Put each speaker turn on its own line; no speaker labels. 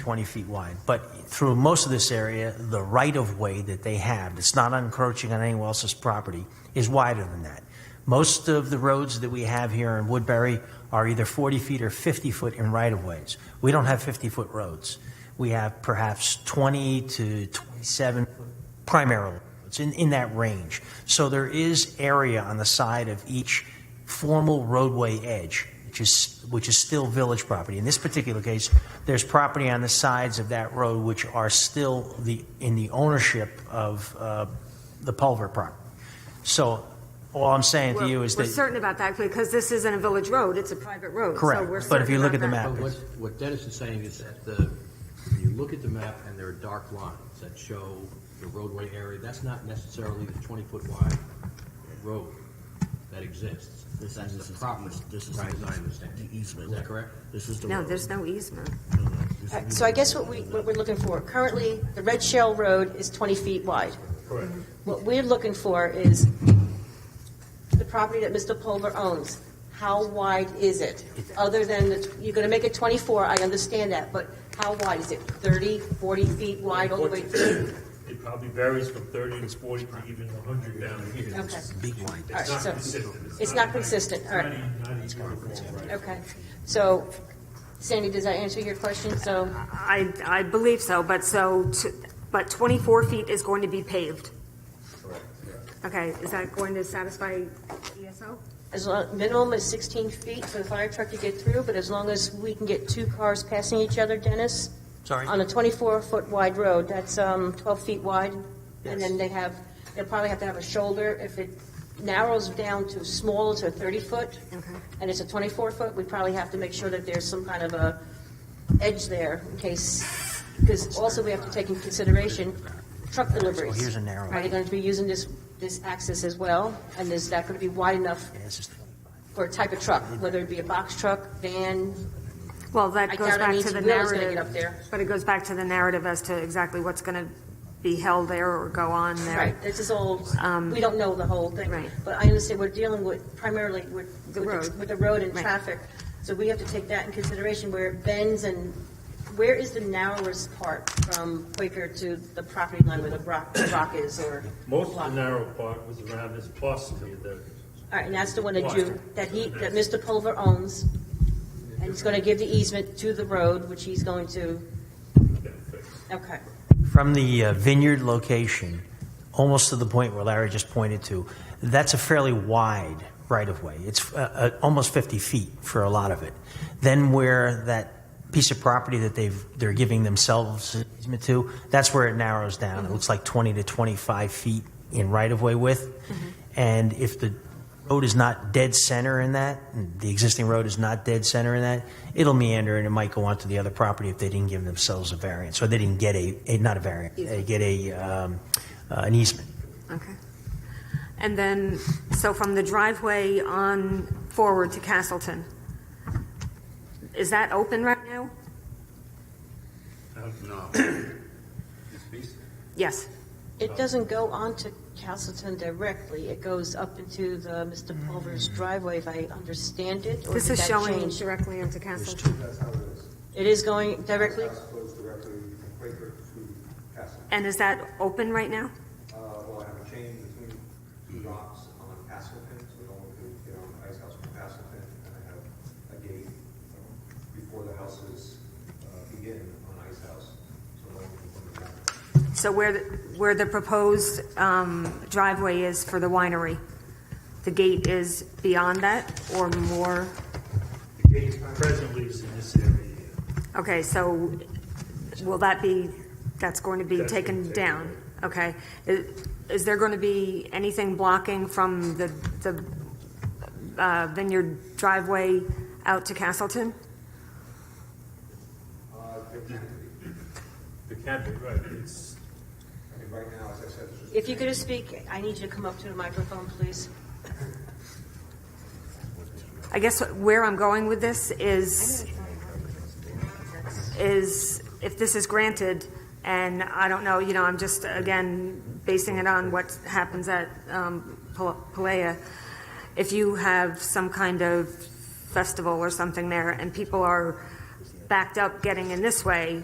20 feet wide. But through most of this area, the right-of-way that they have, that's not encroaching on anyone else's property, is wider than that. Most of the roads that we have here in Woodbury are either 40 feet or 50 foot in right-of-ways. We don't have 50-foot roads. We have perhaps 20 to 27 primarily. It's in, in that range. So there is area on the side of each formal roadway edge, which is, which is still village property. In this particular case, there's property on the sides of that road which are still the, in the ownership of uh, the Pulver property. So all I'm saying to
We're-
you is
We're
that,
certain about that because this isn't a village road, it's a private road. so we're
correct, but if
certain
you look at
about
the
that.
map,
But what, what Dennis is saying is that the, when you look at the map and there are dark lines that show the roadway area, that's not necessarily the twenty-foot wide road that exists.
This
That's
is
the
the
property,
This is
right, as I
the
understand.
the easement.
Is that correct?
This is the
No,
road.
there's no easement.
No, no, this
All right,
is-
So I guess what we, what we're looking for, currently, the Red Shell Road is 20 feet wide.
Correct.
What we're looking for is the property that Mr. Pulver owns. How wide is it? Other than, the tw- you're going to make it 24, I understand that, but how wide is it? 30, 40 feet wide all the way through?
It probably varies from thirty to forty to even a hundred down here.
Okay. All right,
It's not
so
consistent.
It's not consistent, all right,
Not e- not uniform, right?
okay. So Sandy, does that answer your question? So,
I, I believe so, but so, t- but 24 feet is going to be paved. Okay, is that going to satisfy E ESO?
as long, minimum is 16 feet for the fire truck to get through, but as long as we can get two cars passing each other, Dennis?
sorry,
on a 24-foot wide road, that's um, 12 feet wide, and then they have, they'll probably have to have a shoulder. If it narrows down to small to 30-foot,
Okay.
and it's a 24-foot, we probably have to make sure that there's some kind of a edge there in case, because also we have to take into consideration truck
well, here's
deliveries.
a narrow.
Are they going to be using this, this axis as well? And is that going to be wide enough
Yeah, this is 25.
for a type of truck, whether it be a box truck, van?
Well,
I
that goes
doubt
back
any
to the
wheel is gonna get up
narrative,
there.
but it goes back to the narrative as to exactly what's going to be held there or go on there.
Right, this is all, we don't know the whole thing.
Um, Right.
But I understand we're dealing with primarily with, with
The
the-
road.
with the road and
Right.
traffic. So we have to take that in consideration where it bends and where is the narrowest part from Quaker to the property line where the rock, the rock is or?
Most
block?
of the narrow part was around this plus here, the,
All right, and that's the one that you, that he, that
Right.
Mr. Pulver owns. And he's going to give the easement to the road, which he's going to, okay.
From the uh, vineyard location, almost to the point where Larry just pointed to, that's a fairly wide right-of-way. It's uh, uh, almost 50 feet for a lot of it. Then where that piece of property that they've, they're giving themselves an easement to, that's where it narrows down. It looks like 20 to 25 feet in right-of-way width. And if the road is not dead center in that, and the existing road is not dead center in that, it'll meander and it might go onto the other property if they didn't give themselves a variance, or they didn't get a, a- not a variance, they get a, um, uh, an easement.
Okay. And then, so from the driveway on forward to Castleton, is that open right now?
uh,
Yes.
It doesn't go onto Castleton directly, it goes up into the Mr. Pulver's driveway, if I understand it, or did
This is
that
showing
change?
directly into Castleton.
That's how it is.
It is going directly,
House goes directly from Quaker to Castle.
And is that open right now?
Uh, well, I have a chain between two docks on Castleton, so no one can get on Ice House from Castleton. And I have a gate um, before the houses uh, begin on Ice House, so no one can come in.
So where, the- where the proposed um, driveway is for the winery, the gate is beyond that or more?
the gate presently is in this area here.
Okay, so will that be, that's going to be
That's gonna
taken
take
down? Okay. Is is there going to be anything blocking from the the uh, vineyard driveway out to Castleton?
Uh, there can be.
The cabin, right, it's,
I mean, right now, as I said, it's just.
if you could just speak, I need you to come up to the microphone, please.
I guess where I'm going with this is, is if this is granted, and I don't know, you know, I'm just, again, basing it on what happens at um, Pal- Palea. If you have some kind of festival or something there, and people are backed up getting in this way,